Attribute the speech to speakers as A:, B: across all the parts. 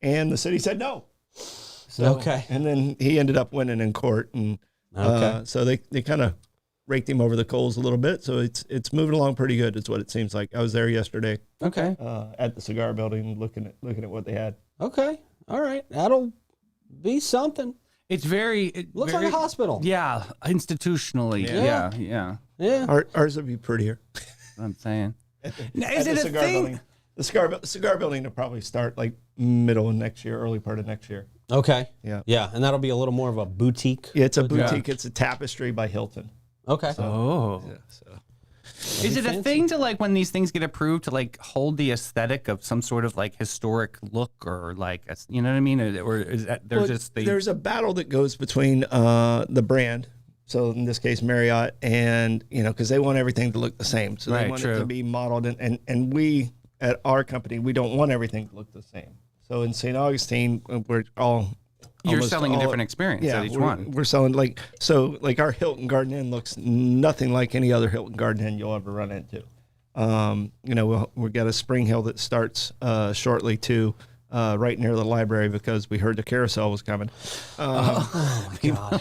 A: and the city said no. So,
B: Okay.
A: And then he ended up winning in court, and uh, so they they kind of raked him over the coals a little bit. So it's it's moving along pretty good. Is what it seems like. I was there yesterday
B: Okay.
A: uh, at the cigar building, looking at looking at what they had.
B: Okay. All right. That'll be something.
C: It's very it
B: Looks
C: very,
B: like a hospital.
C: Yeah, institutionally.
B: Yeah.
C: Yeah, yeah. yeah
B: Yeah.
A: Our, ours would be prettier.
C: that's what I'm saying. Now,
A: at
C: is
A: the
C: it a
A: cigar
C: thing?
A: Building. The cigar, bu- cigar building will probably start like middle of next year, early part of next year.
B: Okay.
A: Yeah.
B: Yeah. And that'll be a little more of a boutique.
A: Yeah, it's a boutique. It's a tapestry by Hilton.
B: Okay.
C: Oh, is it a thing to like when these things get approved to like hold the aesthetic of some sort of like historic look or like a- you know what I mean? Or, or is that there's
A: Well,
C: just the
A: there's a battle that goes between uh, the brand, so in this case Marriott, and you know because they want everything to look the same, so they
C: Right,
A: want it
C: true.
A: to be modeled, and, and and we at our company we don't want everything to look the same. So in St. Augustine, we're all
C: you're
A: almost
C: selling a
A: all-
C: different experience at each
A: we're,
C: one.
A: We're selling like so like our Hilton Garden Inn looks nothing like any other Hilton Garden Inn you'll ever run into. Um, you know, we'll, we've got a spring hill that starts uh, shortly too, uh, right near the library because we heard the carousel was coming.
B: God.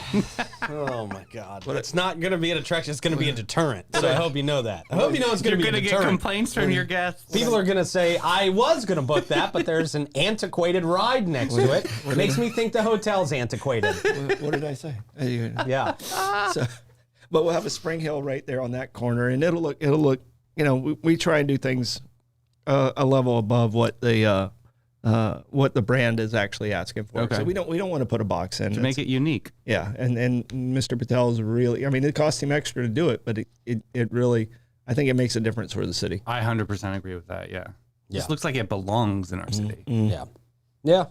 B: oh my God. But it's not going to be an attraction. It's going to be a deterrent. So I hope you know that. I hope you know it's going to
C: You're
B: be a
C: gonna get
B: deterrent.
C: complaints from your guests.
B: People are going to say, I was going to book that, but there's an antiquated ride next to it. Makes me think the hotel's antiquated.
A: what did I say? Uh, you-
B: Yeah.
A: so, but we'll have a spring hill right there on that corner, and it'll look it'll look. You know, we, we try and do things uh, a level above what the uh, uh, what the brand is actually asking for.
C: Okay.
A: So we don't we don't want to put a box in
C: to make it unique.
A: Yeah, and and Mr. Patel's really. I mean, it cost him extra to do it, but it it, it really. I think it makes a difference for the city.
C: I hundred percent agree with that. Yeah.
B: Yeah.
C: This looks like it belongs in our city.
B: Yeah. Yeah.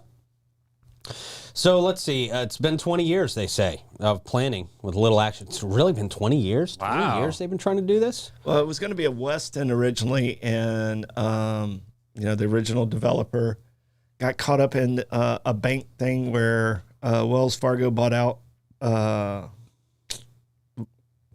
B: So let's see. Uh, it's been 20 years, they say, of planning with little action. It's really been 20 years? 20
C: Wow.
B: years they've been trying to do this?
A: Well, it was going to be a West End originally, and um, you know, the original developer got caught up in uh, a bank thing where uh, Wells Fargo bought out. Uh,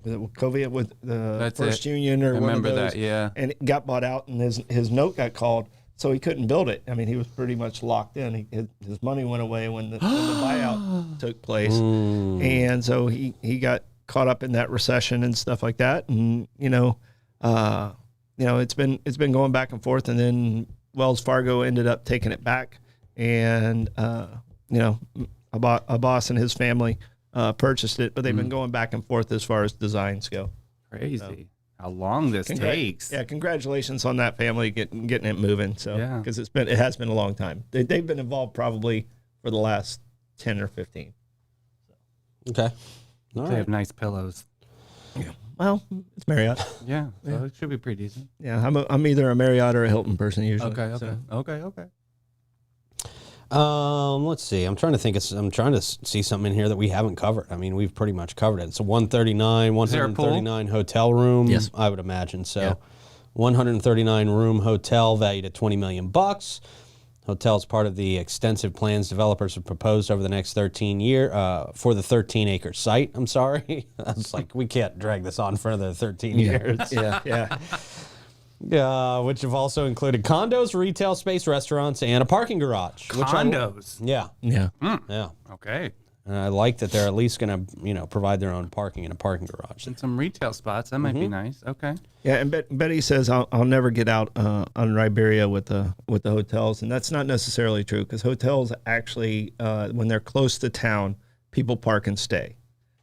A: was it Wachovia with the
C: That's
A: First
C: it.
A: Union or
C: I
A: one of
C: remember
A: those?
C: that, yeah.
A: and it got bought out, and his his note got called, so he couldn't build it. I mean, he was pretty much locked in. He, his, his money went away when the, when the buyout took place, and so he he got caught up in that recession and stuff like that. And you know, uh, you know, it's been it's been going back and forth, and then Wells Fargo ended up taking it back, and uh, you know, a, bo- a boss and his family. Uh, purchased it, but they've been going back and forth as far as designs go.
C: Crazy. How long this
A: Congrat-
C: takes.
A: Yeah, congratulations on that family getting getting it moving. So
C: Yeah.
A: because it's been it has been a long time. They, they've been involved probably for the last ten or fifteen.
B: Okay. All
C: They
B: right.
C: have nice pillows.
A: Well, it's Marriott.
C: Yeah. So it should be pretty decent.
A: yeah, I'm a, I'm either a Marriott or a Hilton person usually. so.
C: Okay. Okay.
B: Um, let's see. I'm trying to think. It's, I'm trying to s- see something in here that we haven't covered. I mean, we've pretty much covered it. It's a 139,
C: there a pool?
B: 139 hotel room. Yes. I would imagine so. 139 room hotel valued at 20 million bucks. Hotel is part of the extensive plans developers have proposed over the next 13 year uh, for the 13 acre site. I'm sorry. I was like, we can't drag this on for another 13 years.
A: Yeah, yeah.
B: Yeah, which have also included condos, retail space, restaurants, and a parking garage. Which I-
C: Condos.
B: yeah,
A: Yeah.
B: yeah.
C: Okay.
B: And I like that they're at least going to, you know, provide their own parking in a parking garage.
C: And some retail spots. That might be nice. Okay.
A: Yeah, and Bet- Betty says I'll, I'll never get out uh, on Riberia with the with the hotels, and that's not necessarily true because hotels actually, uh, when they're close to town, people park and stay.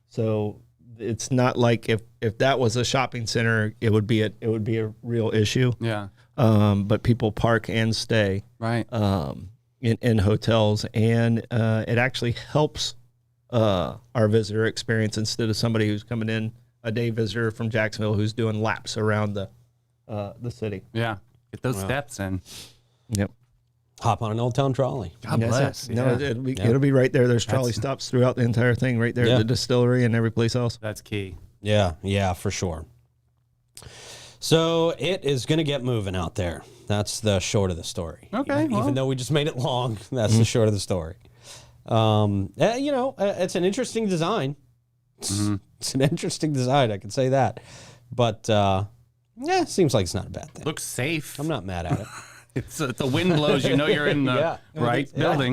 A: So it's not like if if that was a shopping center, it would be a, it would be a real issue.
C: Yeah.
A: Um, but people park and stay
C: Right.
A: um, in, in hotels, and uh, it actually helps uh, our visitor experience instead of somebody who's coming in a day visitor from Jacksonville who's doing laps around the uh, the city.
C: yeah. Get those steps in.
A: Yep.
B: Hop on an old town trolley.
C: God Ah, bless.
A: No,
C: yeah.
A: it- it'll be, it'll be right there. There's trolley stops throughout the entire thing, right there, at
B: Yeah.
A: the distillery and every place else.
C: That's key.
B: Yeah, yeah, for sure. So it is going to get moving out there. That's the short of the story.
C: Okay,
B: Even,
C: well.
B: even though we just made it long, that's the short of the story. Um, eh, you know, eh, it's an interesting design. It's, it's an interesting design. I can say that. But uh, yeah, seems like it's not a bad thing.
C: Looks safe.
B: I'm not mad at it.
C: It's, if the wind blows, you know you're in the
B: Yeah.
C: right building.